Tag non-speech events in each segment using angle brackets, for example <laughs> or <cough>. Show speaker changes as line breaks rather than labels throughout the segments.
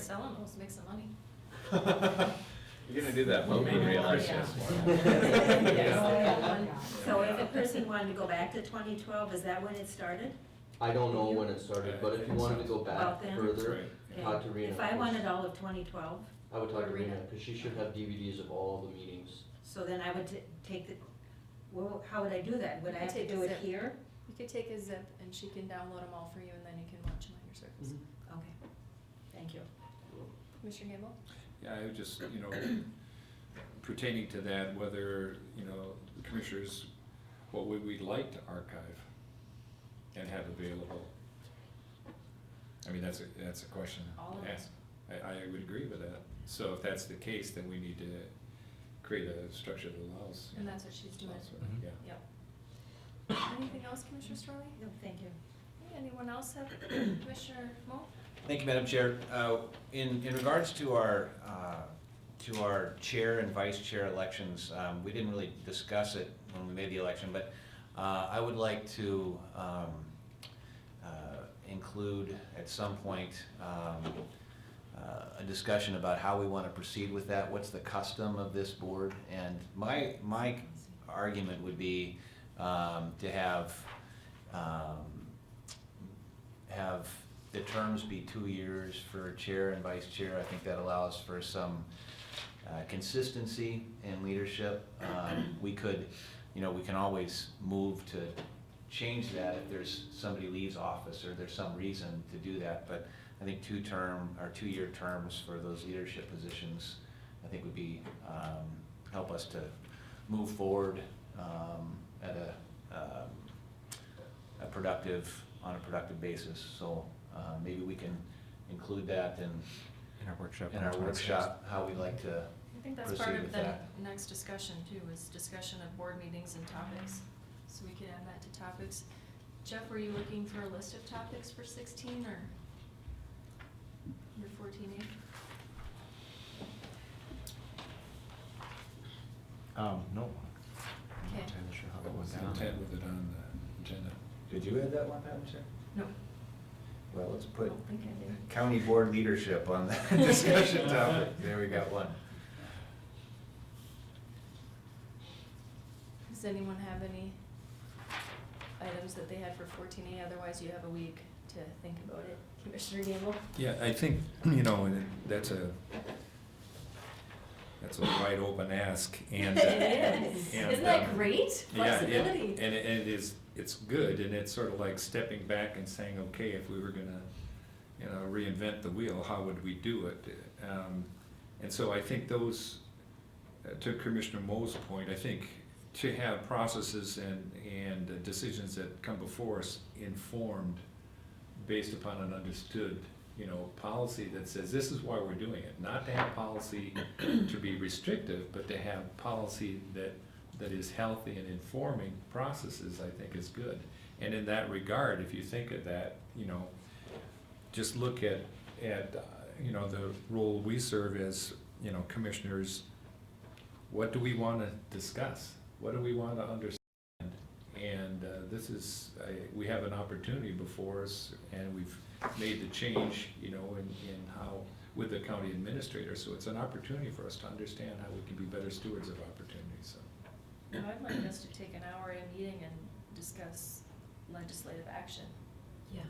sell them, let's make some money.
You're gonna do that, well, we
Yeah.
realize
<laughs>
Yeah.
this
Yes.
one.
Yeah.
So if a person wanted to go back to twenty twelve, is that when it started?
I don't know when it started, but if you wanted to go
Well,
back
then-
further,
Okay.
talk to Rena.
If I wanted all of twenty twelve,
I would talk to Rena,
Rena.
because she should have DVDs of all the meetings.
so then I would t- take the, well, how would I do that? Would I have to do it here?
You could take a zip and she can download them all for you and then you can watch them on your service.
Mm-hmm.
Okay, thank you.
Commissioner Gamble?
Yeah, I would just, you know, pertaining to that, whether, you know, the commissioners, what would we like to archive and have available? I mean, that's a, that's a question
All of
to
it.
ask. I, I would agree with that. So if that's the case, then we need to create a structure that allows. you
And
know,
that's what she's doing.
allows for-
Mhm.
Yeah.
Yep.
Anything else, Commissioner Storley?
No, thank you.
Anyone else have, <coughs> Commissioner Mo?
Thank you, Madam Chair. Uh, In, in regards to our, uh, to our chair and vice chair elections, um, we didn't really discuss it when we made the election, but uh, I would like to um, uh, include at some point um, uh, a discussion about how we want to proceed with that, what's the custom of this board? And my, my argument would be um, to have um, have the terms be two years for chair and vice chair. I think that allows for some uh, consistency in leadership. Um, We could, you know, we can always move to change that if there's, somebody leaves office or there's some reason to do that. But I think two-term, or two-year terms for those leadership positions, I think would be, um, help us to move forward um, at a, um, a productive, on a productive basis, so uh, maybe we can include that in,
In our workshop.
in
on
our
the 26th.
workshop, how we like to
I think that's part
proceed
of
with
the
that.
next discussion too, is discussion of board meetings and topics, so we could add that to topics. Jeff, were you looking for a list of topics for sixteen or your fourteen A?
Um, no. I'm
Okay.
not entirely sure how that
What was
went
the
down.
intent with it on the agenda?
Did you add that one, Madam Chair?
No.
Well, let's put
don't think I did.
county board leadership on the <laughs> discussion topic, there we got one.
Does anyone have any items that they had for fourteen A? Otherwise, you have a week to think about it. Commissioner Gamble?
Yeah, I think, you know, and that's a, that's a wide open ask and. uh,
<laughs> It is.
and,
Isn't that
um,
great?
yeah, it-
Flexibility.
And it, and it is, it's good and it's sort of like stepping back and saying, okay, if we were gonna, you know, reinvent the wheel, how would we do it? Um, and so I think those, uh, to Commissioner Mo's point, I think to have processes and, and uh, decisions that come before us informed based upon an understood, you know, policy that says this is why we're doing it. Not to have policy to be restrictive, but to have policy that, that is healthy and informing processes, I think is good. And in that regard, if you think of that, you know, just look at, at, uh, you know, the role we serve as, you know, commissioners. What do we want to discuss? What do we want to understand? And uh, this is, I- we have an opportunity before us, and we've made the change, you know, in, in how, with the county administrator. So it's an opportunity for us to understand how we can be better stewards of opportunities, so.
No, I'd like us to take an hour a meeting and discuss legislative action.
Yeah.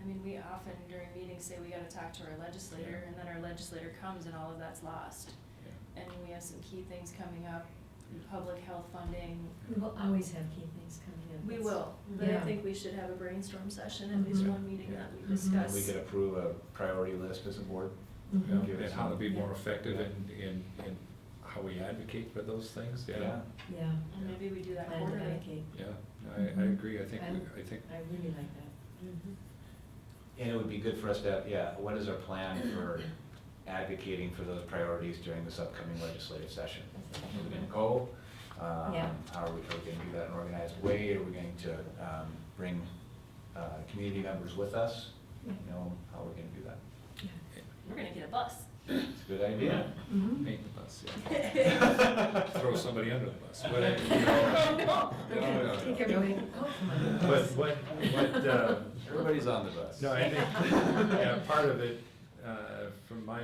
I mean, we often during meetings say we gotta talk to our legislator,
Yeah.
and then our legislator comes and all of that's lost.
yeah.
And we have some key things coming up, public health funding,
We will always have key things coming in.
We
That's-
will, but I
Yeah.
think we should have a brainstorm session, at least
Mm-hmm.
Mhm.
one meeting that we
Mm-hmm.
Mhm.
discuss.
We could approve a priority list as a board.
Mhm.
Give
And
us
how to
some-
be more effective
Yeah.
in, in, in how we advocate for those things, yeah.
Yeah.
And maybe we do that
Plan to
quarterly.
allocate.
Yeah, I, I agree, I think,
I'm-
we- I think,
I really like that.
Mm-hmm.
And it would be good for us to, have- yeah, what is our plan for advocating for those priorities during this upcoming legislative session? Are we gonna go? Um,
Yeah.
How are we, are we gonna do that in an organized way? Are we going to um, bring uh, community members with us? You know, how are we gonna do that?
We're gonna get a bus.
It's a good idea.
Mhm.
make the bus, <laughs>
<laughs>
yeah. Throw somebody under the bus, but,
<laughs>
I- you know, <laughs> no, no, no.
Take everybody, oh, come on.
But what, what, uh, <laughs>
Everybody's on the bus.
No, I think, yeah, part of it, uh, from my